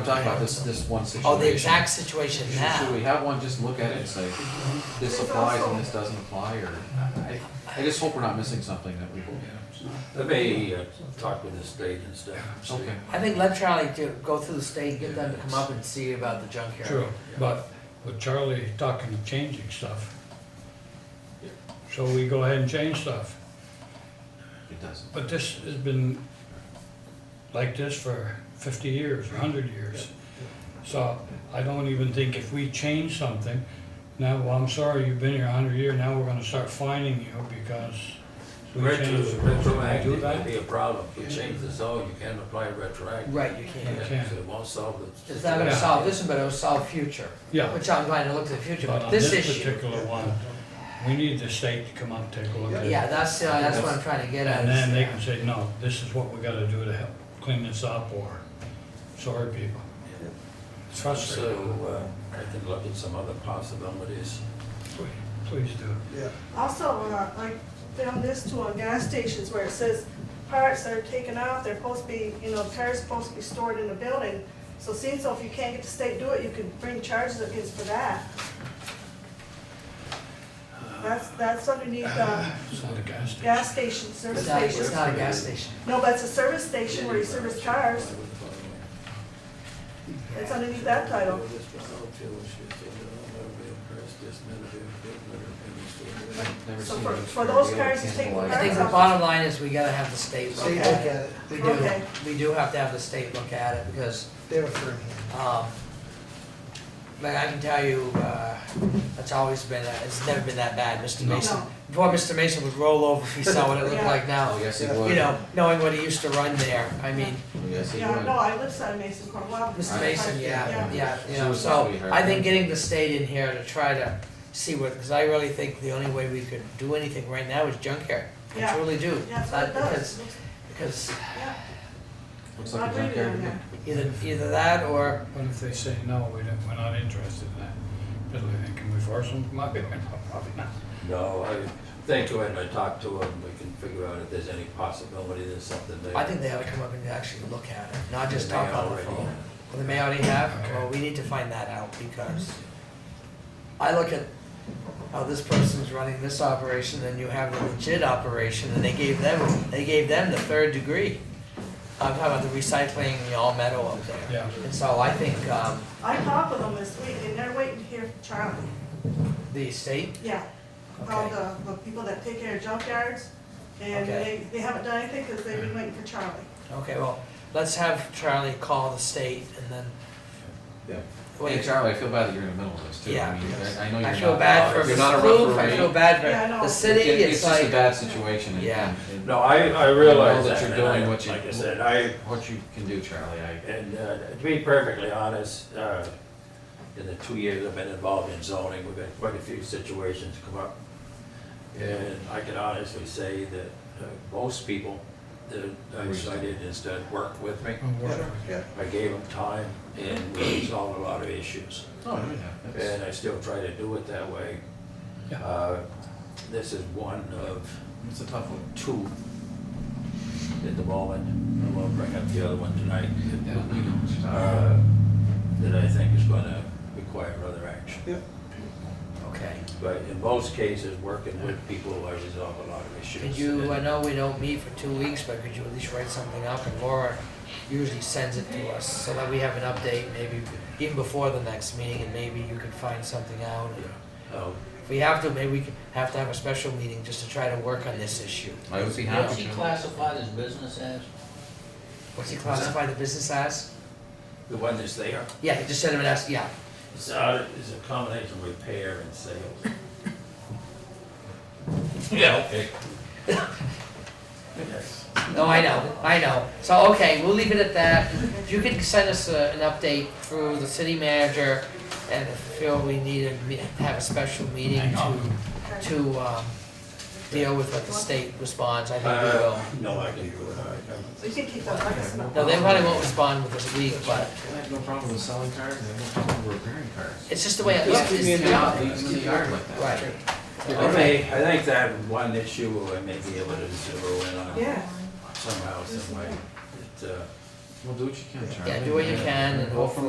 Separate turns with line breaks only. I'm talking about this, this one situation.
Oh, the exact situation
Should- Should we
now.
have one just look at it and say, this applies and this doesn't apply, or, I, I just hope we're not missing something that we.
Let me uh, talk with the state and stuff. and see.
Okay.
I think let Charlie do, go through the state, get them to come up and see about the junkyard.
True, but with Charlie talking of changing stuff. So we go ahead and change stuff,
It doesn't.
but this has been like this for fifty years, hundred years. So I don't even think if we change something, now, well, I'm sorry, you've been here a hundred years, now we're gonna start fining you because we
Retro,
changed. Do
retroactive
that?
would be a problem. If you change the zone, you can't apply retroactive.
Right, you
Yeah.
can't.
can't.
So It won't solve it.
It's not gonna
Yeah.
solve this one, but it'll solve future,
Yeah,
which I'm glad to look to the future,
but
but
on
this
Uh, this
issue.
particular one, we need the state to come up, and take a look at it.
Yeah, that's, uh, that's what I'm trying to get at.
And then they
is-
can say, no, this is what we gotta do to help clean this up, or, sorry, people. It's frustrating.
So uh, I can look at some other possibilities.
Please do.
Also, uh, I found this too on gas stations where it says parts are taken out, they're supposed to be, you know, cars supposed to be stored in the building. So seeing so if you can't get the state to do it, you can bring charges against for that. That's, that's underneath, uh,
It's not a gas station.
gas station, service
It's not, it's
station.
not a gas station.
No, but it's a service station where you service cars. It's underneath that title.
Never
So
seen
for-
it.
for those guys who take
I think the bottom line is we gotta have the state look
State look
at it.
at it,
We do,
Okay.
we do have to have the state look at it, because
they're for me.
Um, But I can tell you, uh, it's always been, that- it's never been that bad, Mr. Mason.
No.
Before, Mr. Mason would roll over if he saw what it looked like now.
Oh, yes, it would.
You
Oh,
You know, knowing what he used to run there, I mean,
Yes, it
Yeah, no,
would.
I live side Mason Cornwall.
Mr. Mason, yeah,
Yeah.
yeah, you
She
know,
was a
so
sweetheart.
I think getting the state in here to try to see what, because I really think the only way we could do anything right now is junkyard. I
Yeah.
truly do.
Yeah, that's what it
Uh, because-
does. Looks-
Because
Yeah.
Looks
I
like a
believe it
junkyard.
or
to me.
not.
either, either that or,
What if they say, no, we don't, we're not interested in that? Then they- Can we force them? Might be, might not, probably not.
No, I think when I talk to them, we can figure out if there's any possibility there's something there.
I think they ought to come up and actually look at it, not just
They
talk on the
already-
phone. Well, they may already have, well, we need to find that out because I look at how this person's running this operation, and you have the legit operation, and they gave them, they gave them the third degree. I'm talking about the recycling, the all metal up there.
Yeah.
And so I think, um,
I talked with them this week, and they're waiting to hear from Charlie.
the state,
Yeah, all
okay,
the, the people that take care of junkyards, and
Okay.
they, they haven't done anything because they've been waiting for Charlie.
okay, well, let's have Charlie call the state and then.
Yeah.
Wait,
Hey Charlie, I feel bad that you're in the middle of this too.
Yeah.
I mean, I I know you're
I
not.
feel bad for
you're not a
Mrs. Kloof, I
referee.
feel bad
Yeah, I
for
know.
the
It-
city, it's
just a
like,
bad situation. and-
Yeah.
and-
No, I, I
I
realize
know that
that.
you're
and I-
doing what you-
Like I said, I,
What you can do, Charlie, I,
And uh, to be perfectly honest, uh, in the two years I've been involved in zoning, we've had quite a few situations come up. And I can honestly say that uh, most people that I cited instead worked with me.
Well, we're-
Yeah,
I gave them time and we resolved a lot of issues.
oh, yeah, that's.
And I still try to do it that way.
Yeah.
Uh, This is one of
It's a tough one.
two at the moment. I won't bring up the other one tonight.
Yeah, we know what you're talking about.
uh, that I think is gonna require other action.
yeah.
okay.
But in most cases, working with people, I resolve a lot of issues.
Could you, I know we don't meet for two weeks, but could you at least write something up and Laura usually sends it to us so that we have an update maybe even before the next meeting and maybe you could find something out.
Oh,
If we have to, maybe we could have to have a special meeting just to try to work on this issue.
I would be
What's
happy
he
to.
classified as business as?
What's he classify the business as?
The one that's there,
Yeah, he just sent him an ask, yeah,
it's, uh, is a combination of repair and sales. Yeah, okay. Yes.
no, I know, I know. So, okay, we'll leave it at that. If you could send us a, an update through the city manager and if you feel we need to me- have a special meeting
Hang
to
on.
Okay.
to um, deal with what the state responds, I think we will.
Uh, no, I can do it, I can.
You can keep that, like I said.
No, they probably won't respond with this week, but
I have no problem with selling cars, and I have no problem with repairing cars.
it's just the way it
Just
looks.
keep me in the yard, leave them in the yard like that.
Right,
Okay, I think that one issue I may be able to zero in on
Yeah,
somehow, some way. It, uh,
Well, do what you can, Charlie.
Yeah, do what you can and
Go from